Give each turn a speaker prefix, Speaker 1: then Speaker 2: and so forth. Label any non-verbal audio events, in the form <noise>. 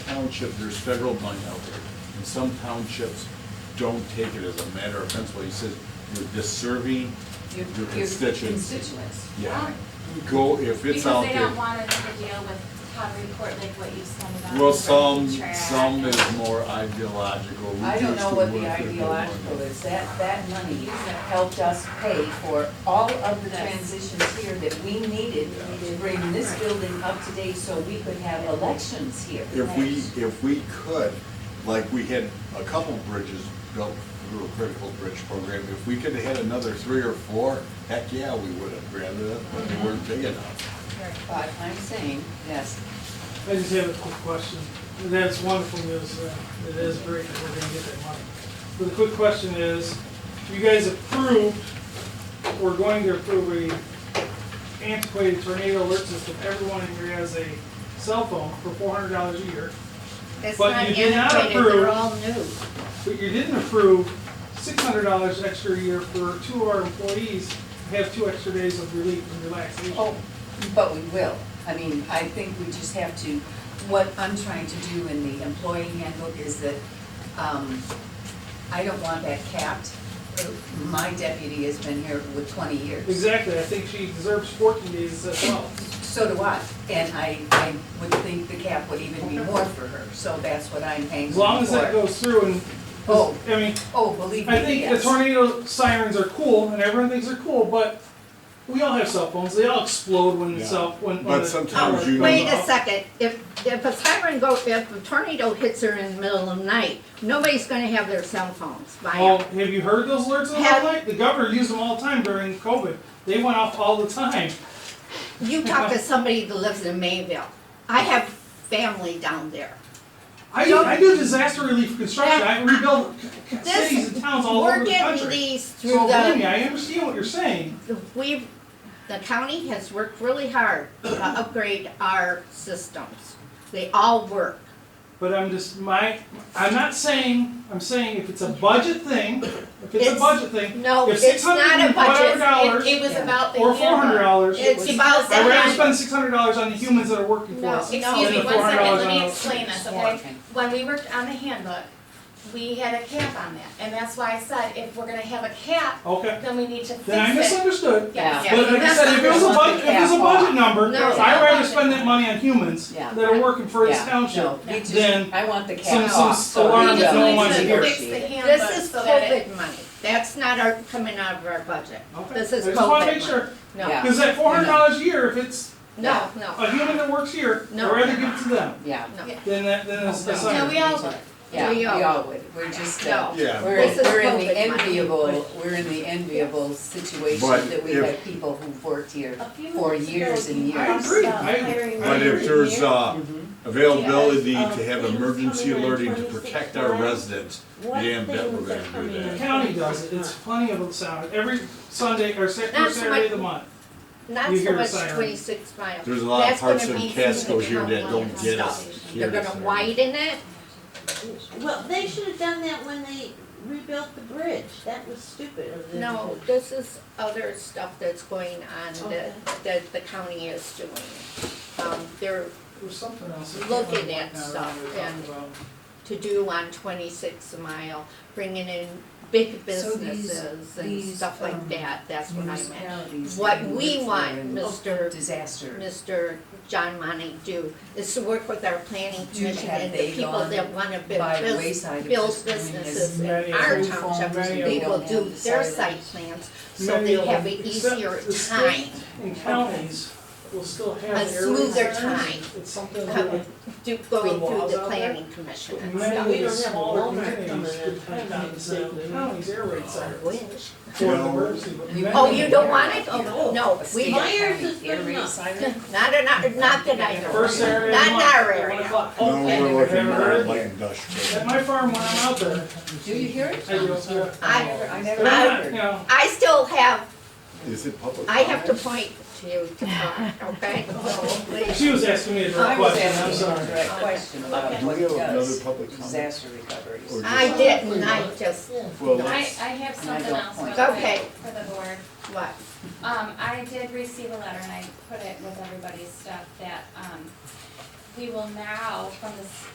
Speaker 1: township, there's federal money out there, and some townships don't take it as a matter of principle. He says, you're disserving
Speaker 2: Your-
Speaker 1: your
Speaker 2: your
Speaker 1: constituents.
Speaker 2: Constituents.
Speaker 1: Yeah, go, if it's out
Speaker 3: Because they don't
Speaker 1: there.
Speaker 3: want another deal with how to report like what you send about.
Speaker 1: Well,
Speaker 3: the
Speaker 1: some,
Speaker 3: keeping track.
Speaker 1: some is more ideological. We
Speaker 2: I don't
Speaker 1: use
Speaker 2: know
Speaker 1: the
Speaker 2: what
Speaker 1: word
Speaker 2: the
Speaker 1: that they
Speaker 2: ideological
Speaker 1: want.
Speaker 2: is, that, that money helped us pay for all of the transitions here that we needed to bring this building up to date so we could have elections here.
Speaker 1: If we, if we could, like we had a couple bridges built through a critical bridge program, if we could have had another three or four, heck yeah, we would have grabbed it, but they weren't big enough.
Speaker 2: But I'm saying, yes,
Speaker 4: I just have a quick question, and that's wonderful news, uh, it is great that we're gonna get that money. But the quick question is, you guys approved, we're going to approve a antiquated tornado alert system, everyone in here has a cell phone for four hundred dollars a year,
Speaker 5: That's
Speaker 4: But
Speaker 5: not
Speaker 4: you did not
Speaker 5: antiquated,
Speaker 4: approve.
Speaker 5: they're all new.
Speaker 4: but you didn't approve six hundred dollars extra a year for two of our employees, to have two extra days of relief and relaxation.
Speaker 2: oh, but we will. I mean, I think we just have to, what I'm trying to do in the employee handbook is that, um, I don't want that capped. My deputy has been here with twenty years.
Speaker 4: Exactly, I think she deserves fourteen days as well.
Speaker 2: So do I, and I, I would think the cap would even be more for her, so that's what I'm hanging
Speaker 4: As
Speaker 2: for.
Speaker 4: long as that goes through and,
Speaker 2: Oh.
Speaker 4: I mean,
Speaker 2: Oh, believe me,
Speaker 4: I think the
Speaker 2: yes.
Speaker 4: tornado sirens are cool, and everyone thinks they're cool, but we all have cell phones. They all explode when the
Speaker 1: Yeah.
Speaker 4: cell when. when
Speaker 1: But
Speaker 4: the
Speaker 1: sometimes
Speaker 4: tower
Speaker 1: you
Speaker 4: goes
Speaker 5: Wait a
Speaker 4: off.
Speaker 5: second, if, if a siren go, if a tornado hits her in the middle of the night, nobody's gonna have their cell phones by
Speaker 4: Well,
Speaker 5: now.
Speaker 4: Oh, have you heard those alerts in the
Speaker 5: Have-
Speaker 4: light? The governor used them all the time during COVID. They went off all the time.
Speaker 5: You talk to somebody that lives in Mayville, I have family down there.
Speaker 4: I,
Speaker 5: So-
Speaker 4: I do disaster relief construction. I rebuild c- c-
Speaker 5: This-
Speaker 4: cities and towns all
Speaker 5: We're
Speaker 4: over the
Speaker 5: getting
Speaker 4: country.
Speaker 5: these
Speaker 4: So
Speaker 5: through
Speaker 4: believe me,
Speaker 5: the,
Speaker 4: I understand what you're saying.
Speaker 5: we've, the county has worked really hard to upgrade our systems. They all work.
Speaker 4: But I'm just my I'm not saying I'm saying if it's a budget thing, if it's, a
Speaker 5: It's-
Speaker 4: budget thing,
Speaker 5: No,
Speaker 4: If
Speaker 5: it's not a
Speaker 4: $600, whatever dollars,
Speaker 5: budget, it, it was
Speaker 2: Yeah.
Speaker 5: about the
Speaker 4: or four hundred
Speaker 5: handbook.
Speaker 4: dollars.
Speaker 5: It's about the
Speaker 4: I'd rather
Speaker 5: handbook.
Speaker 4: spend six hundred dollars on the humans that are working for
Speaker 5: No,
Speaker 4: us.
Speaker 5: it-
Speaker 3: Excuse me,
Speaker 4: Another
Speaker 3: one second, let
Speaker 4: $400
Speaker 3: me explain this, okay?
Speaker 2: Okay.
Speaker 3: When we worked on the handbook, we had a cap on that, and that's why I said, if we're gonna have a cap,
Speaker 4: Okay,
Speaker 3: then we need to fix it.
Speaker 4: then I misunderstood.
Speaker 3: Yes.
Speaker 2: Yeah.
Speaker 4: But like I said, if it was a budget, if it was a budget number,
Speaker 5: No.
Speaker 4: I'd rather spend that money on humans
Speaker 2: Yeah.
Speaker 4: that are working for this
Speaker 2: Yeah,
Speaker 4: township.
Speaker 2: no, we just-
Speaker 4: Then
Speaker 2: I want the
Speaker 4: some-
Speaker 2: cap
Speaker 4: some
Speaker 2: off, so
Speaker 4: alarm
Speaker 2: we
Speaker 4: that no
Speaker 2: don't
Speaker 4: one's
Speaker 3: We need
Speaker 4: here.
Speaker 3: to fix the handbook
Speaker 5: This is
Speaker 3: so that it-
Speaker 5: COVID money, that's not our, coming out of our budget.
Speaker 4: Okay.
Speaker 5: This is
Speaker 4: I just wanna
Speaker 5: COVID
Speaker 4: make sure,
Speaker 5: No,
Speaker 2: Yeah.
Speaker 4: because that four hundred dollars a year, if it's
Speaker 5: no, no,
Speaker 4: a human that works here, I'd
Speaker 5: No.
Speaker 4: rather give it to them
Speaker 2: Yeah,
Speaker 5: no.
Speaker 4: than that, than it's
Speaker 2: No.
Speaker 4: a
Speaker 3: No,
Speaker 4: sign.
Speaker 3: we all would.
Speaker 2: yeah,
Speaker 5: We
Speaker 2: we
Speaker 5: all-
Speaker 2: all would, we're just, uh,
Speaker 5: No.
Speaker 1: Yeah,
Speaker 2: we're,
Speaker 5: This is
Speaker 2: we're in the
Speaker 5: COVID money.
Speaker 2: enviable, we're in the enviable situation
Speaker 1: But
Speaker 2: that we
Speaker 1: if-
Speaker 2: have people who've worked here
Speaker 3: A few
Speaker 2: for
Speaker 3: months ago,
Speaker 2: years and
Speaker 3: you
Speaker 2: years.
Speaker 4: I
Speaker 3: asked,
Speaker 4: agree.
Speaker 3: um,
Speaker 4: I-
Speaker 3: hiring
Speaker 1: But if
Speaker 3: managers
Speaker 1: there's,
Speaker 3: here.
Speaker 1: uh,
Speaker 2: Mhm.
Speaker 1: availability
Speaker 6: Mm-hmm. Yes,
Speaker 1: to have
Speaker 6: um,
Speaker 1: emergency
Speaker 6: things
Speaker 1: alerting to
Speaker 6: coming in
Speaker 1: protect
Speaker 6: 26
Speaker 1: our
Speaker 6: lines.
Speaker 1: residents,
Speaker 6: What
Speaker 1: damn bet we're
Speaker 6: things are
Speaker 1: gonna do
Speaker 6: coming
Speaker 1: that.
Speaker 4: The county does it, it's plenty of sound, every Sunday or Sa-
Speaker 5: Not
Speaker 4: first
Speaker 5: so
Speaker 4: Saturday of
Speaker 5: much-
Speaker 4: the month.
Speaker 5: Not
Speaker 4: You
Speaker 5: so
Speaker 4: hear a
Speaker 5: much
Speaker 4: siren.
Speaker 5: twenty-six miles.
Speaker 1: There's a lot of
Speaker 5: That's gonna
Speaker 1: parts of
Speaker 5: be
Speaker 1: Casco here that
Speaker 5: significant
Speaker 1: don't get us.
Speaker 5: stuff.
Speaker 1: Here
Speaker 5: They're
Speaker 1: it is.
Speaker 5: gonna widen it,
Speaker 6: Well, they should have done that when they rebuilt the bridge. That was stupid of them.
Speaker 5: no, this is other stuff that's going on that, that the county is doing. Um, they're
Speaker 4: There's something else. I can't
Speaker 5: Looking
Speaker 4: remember
Speaker 5: at
Speaker 4: now that
Speaker 5: stuff
Speaker 4: we were talking
Speaker 5: and-
Speaker 4: about.
Speaker 5: to do on twenty-six mile, bringing in big
Speaker 2: So these-
Speaker 5: businesses and
Speaker 2: these,
Speaker 5: stuff
Speaker 2: um,
Speaker 5: like that, that's what I meant.
Speaker 2: Municipalities
Speaker 5: What
Speaker 2: that
Speaker 5: we
Speaker 2: live there
Speaker 5: want,
Speaker 2: in
Speaker 5: Mr.
Speaker 2: Disaster.
Speaker 5: Mr. John Monty do is to work with our planning
Speaker 2: Do
Speaker 5: commission
Speaker 2: have
Speaker 5: and
Speaker 2: they
Speaker 5: the people
Speaker 2: gone
Speaker 5: that wanna
Speaker 2: by
Speaker 5: build, bus-
Speaker 2: wayside of
Speaker 5: build
Speaker 2: just doing this
Speaker 5: businesses in
Speaker 4: many
Speaker 5: our
Speaker 4: of
Speaker 2: them.
Speaker 5: township,
Speaker 4: Many of
Speaker 5: they
Speaker 4: them
Speaker 5: will
Speaker 2: don't
Speaker 5: do
Speaker 2: have
Speaker 5: their
Speaker 2: sirens.
Speaker 5: site plans, so
Speaker 4: Many
Speaker 5: they
Speaker 4: of
Speaker 5: have
Speaker 4: them,
Speaker 5: an
Speaker 4: except
Speaker 5: easier
Speaker 4: the state
Speaker 5: time.
Speaker 4: And counties will still have.
Speaker 5: A
Speaker 4: their
Speaker 5: smoother
Speaker 4: own
Speaker 5: time.
Speaker 4: sirens. It's something that we-
Speaker 5: Do, going through
Speaker 4: walls
Speaker 5: the
Speaker 4: out
Speaker 5: planning commission and
Speaker 4: many
Speaker 5: stuff.
Speaker 4: of
Speaker 6: We
Speaker 4: the
Speaker 6: don't have
Speaker 4: smaller
Speaker 6: Walmart
Speaker 4: communities
Speaker 6: coming in
Speaker 4: depend on
Speaker 6: tonight,
Speaker 4: the state
Speaker 6: so-
Speaker 4: counties, air raid sirens
Speaker 5: Wish.
Speaker 4: for
Speaker 1: No.
Speaker 4: emergency, but many
Speaker 5: Oh,
Speaker 4: of
Speaker 5: you
Speaker 4: them-
Speaker 5: don't want it? Oh, no, we,
Speaker 6: Mine
Speaker 5: not,
Speaker 6: Myers is good enough.
Speaker 5: <laughs> in our- not that I know of.
Speaker 4: First Saturday of
Speaker 5: Not
Speaker 4: the
Speaker 5: in
Speaker 4: month,
Speaker 5: our
Speaker 4: at one
Speaker 5: area.
Speaker 4: o'clock.
Speaker 1: No, we're looking
Speaker 4: Never
Speaker 1: more
Speaker 4: heard
Speaker 1: like
Speaker 4: that. At
Speaker 1: industrial.
Speaker 4: my farm when I'm out there,
Speaker 2: Do you hear it?
Speaker 4: I do, yeah.
Speaker 5: I,
Speaker 2: I
Speaker 4: But I'm
Speaker 2: never
Speaker 4: not,
Speaker 2: heard.
Speaker 4: you know,
Speaker 5: I still have
Speaker 1: Is it public?
Speaker 5: I have to point to you to talk, okay?
Speaker 4: she was asking me a
Speaker 2: I
Speaker 4: direct
Speaker 2: was
Speaker 4: question, I'm
Speaker 2: asking a
Speaker 4: sorry.
Speaker 2: direct question about
Speaker 1: Do
Speaker 2: what
Speaker 1: we have another
Speaker 2: does
Speaker 1: public comment?
Speaker 2: disaster recovery.
Speaker 1: Or
Speaker 5: I didn't, I just,
Speaker 1: Well,
Speaker 3: I, I
Speaker 1: let's-
Speaker 3: have
Speaker 2: And I
Speaker 3: something
Speaker 2: don't
Speaker 3: else
Speaker 2: point.
Speaker 3: real
Speaker 5: Okay.
Speaker 3: quick for the board.
Speaker 5: what?
Speaker 3: Um, I did receive a letter, and I put it with everybody's stuff, that, um, we will now, from this